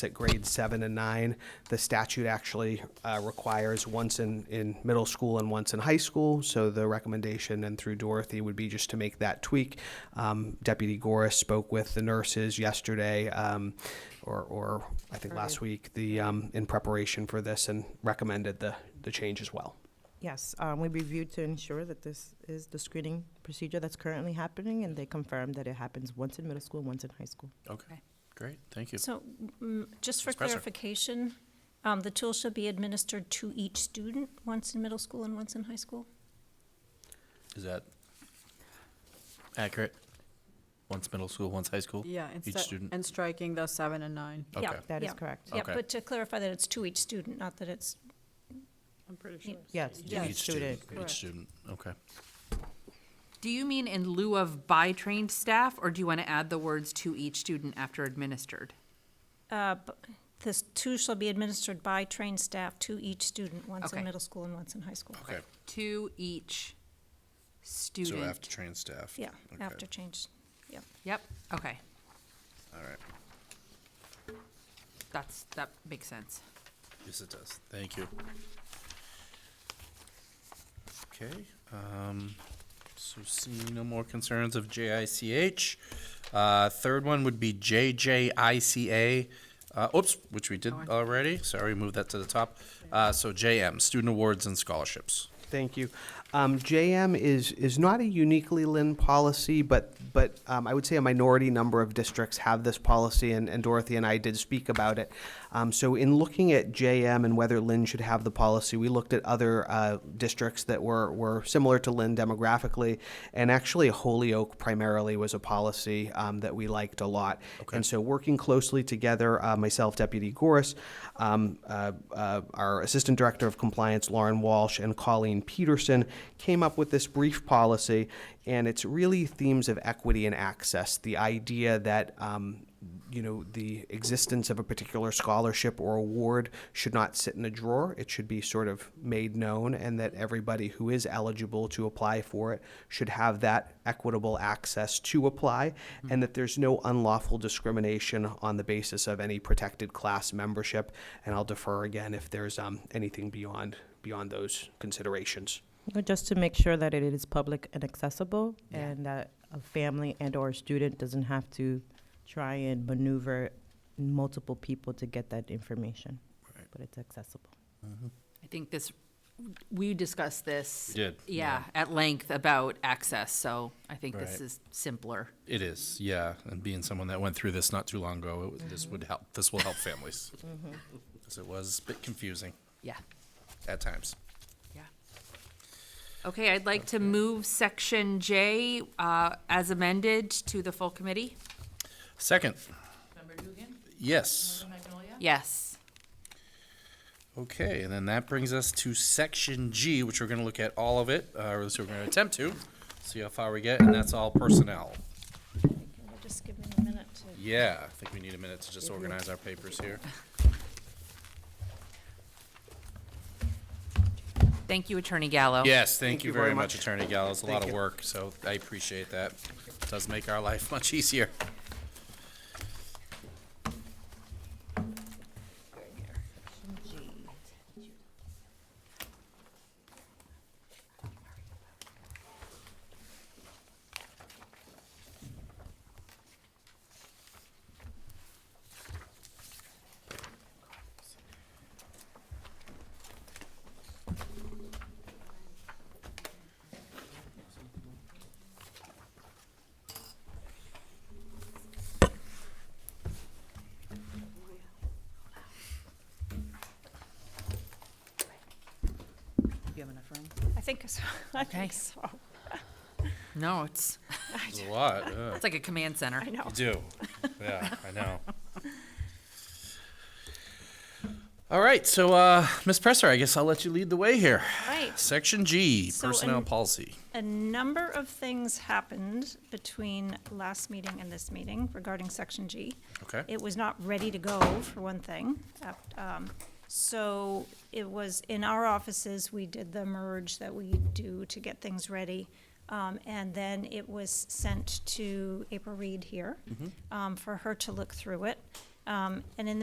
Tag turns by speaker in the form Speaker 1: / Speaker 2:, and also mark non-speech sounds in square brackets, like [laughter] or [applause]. Speaker 1: It's at grade seven and nine. The statute actually uh, requires once in, in middle school and once in high school. So the recommendation and through Dorothy would be just to make that tweak. Um, Deputy Goris spoke with the nurses yesterday, um, or, or I think last week, the, um, in preparation for this and recommended the, the change as well.
Speaker 2: Yes, um, we reviewed to ensure that this is the screening procedure that's currently happening, and they confirmed that it happens once in middle school, once in high school.
Speaker 3: Okay, great, thank you.
Speaker 4: So, mm, just for
Speaker 3: Ms. Presser.
Speaker 4: clarification, um, the tool shall be administered to each student, once in middle school and once in high school?
Speaker 3: Is that accurate? Once middle school, once high school?
Speaker 5: Yeah, instead,
Speaker 3: student.
Speaker 5: and striking the seven and nine.
Speaker 3: Okay,
Speaker 4: Yeah.
Speaker 2: That is correct.
Speaker 4: Yeah,
Speaker 3: Okay.
Speaker 4: but to clarify that it's to each student, not that it's,
Speaker 5: I'm pretty
Speaker 4: sure.
Speaker 2: Yes,
Speaker 3: Yeah,
Speaker 2: each student.
Speaker 3: Each
Speaker 5: Correct.
Speaker 3: student, okay.
Speaker 6: Do you mean in lieu of by trained staff, or do you want to add the words to each student after administered?
Speaker 4: uh, b- this tool shall be administered by trained staff to each student, once in
Speaker 6: Okay.
Speaker 4: middle school and once in high school.
Speaker 3: Okay,
Speaker 6: To each
Speaker 3: so
Speaker 6: student?
Speaker 3: after trained staff?
Speaker 4: Yeah,
Speaker 3: Okay,
Speaker 4: after change, yeah.
Speaker 6: Yep, okay,
Speaker 3: All right,
Speaker 6: that's, that makes sense.
Speaker 3: yes, it does, thank you. Okay, um, so seeing no more concerns of JICH. Uh, third one would be JJICA, uh, oops, which we did already, sorry, move that to the top. Uh, so JM, Student Awards and Scholarships.
Speaker 1: Thank you. Um, JM is, is not a uniquely Lynn policy, but, but um, I would say a minority number of districts have this policy, and, and Dorothy and I did speak about it. Um, so in looking at JM and whether Lynn should have the policy, we looked at other uh, districts that were, were similar to Lynn demographically, and actually Holyoke primarily was a policy um, that we liked a lot. And so working closely together, uh, myself, Deputy Goris, um, uh, uh, our Assistant Director of Compliance, Lauren Walsh, and Colleen Peterson came up with this brief policy, and it's really themes of equity and access. The idea that um, you know the existence of a particular scholarship or award should not sit in a drawer. It should be sort of made known, and that everybody who is eligible to apply for it should have that equitable access to apply, and that there's no unlawful discrimination on the basis of any protected class membership. And I'll defer again if there's um, anything beyond beyond those considerations.
Speaker 2: Uh, Just to make sure that it is public and accessible, and that a family and/or student doesn't have to try and maneuver multiple people to get that information,
Speaker 3: Right.
Speaker 2: but it's accessible.
Speaker 6: I think this, we discussed this.
Speaker 3: We did,
Speaker 6: Yeah, at length about access, so I think this
Speaker 3: Right.
Speaker 6: is simpler.
Speaker 3: It is, yeah. And being someone that went through this not too long ago, it, this would help. This will help families. 'Cause it was a bit confusing
Speaker 6: Yeah,
Speaker 3: at times.
Speaker 6: yeah. Okay, I'd like to move section J, uh, as amended to the full committee.
Speaker 3: Second. Yes.
Speaker 6: Yes.
Speaker 3: Okay, and then that brings us to section G, which we're going to look at all of it, uh, or at least we're going to attempt to, see how far we get, and that's all personnel.
Speaker 4: We'll Just give me a minute to,
Speaker 3: Yeah, I think we need a minute to just organize our papers here.
Speaker 6: Thank you, Attorney Gallo.
Speaker 3: Yes, thank you very much, Attorney Gallo. It's a lot of work, so I appreciate that. Does make our life [laughs] much easier.
Speaker 4: I think, so. [laughs] I think
Speaker 6: Okay.
Speaker 4: so,
Speaker 6: No, it's,
Speaker 3: It's a lot, yeah.
Speaker 6: it's like a command center.
Speaker 4: I know.
Speaker 3: You do. Yeah, I know. All right, so uh, Ms. Presser, I guess I'll let you lead the way here.
Speaker 4: Right.
Speaker 3: Section G,
Speaker 4: So
Speaker 3: personnel
Speaker 4: in-
Speaker 3: policy.
Speaker 4: A number of things happened between last meeting and this meeting regarding Section G.
Speaker 3: Okay.
Speaker 4: It was not ready to go, for one thing. Ap- um, So it was, in our offices, we did the merge that we do to get things ready. Um, And then it was sent to April Reed here um, for her to look through it. Um, And in the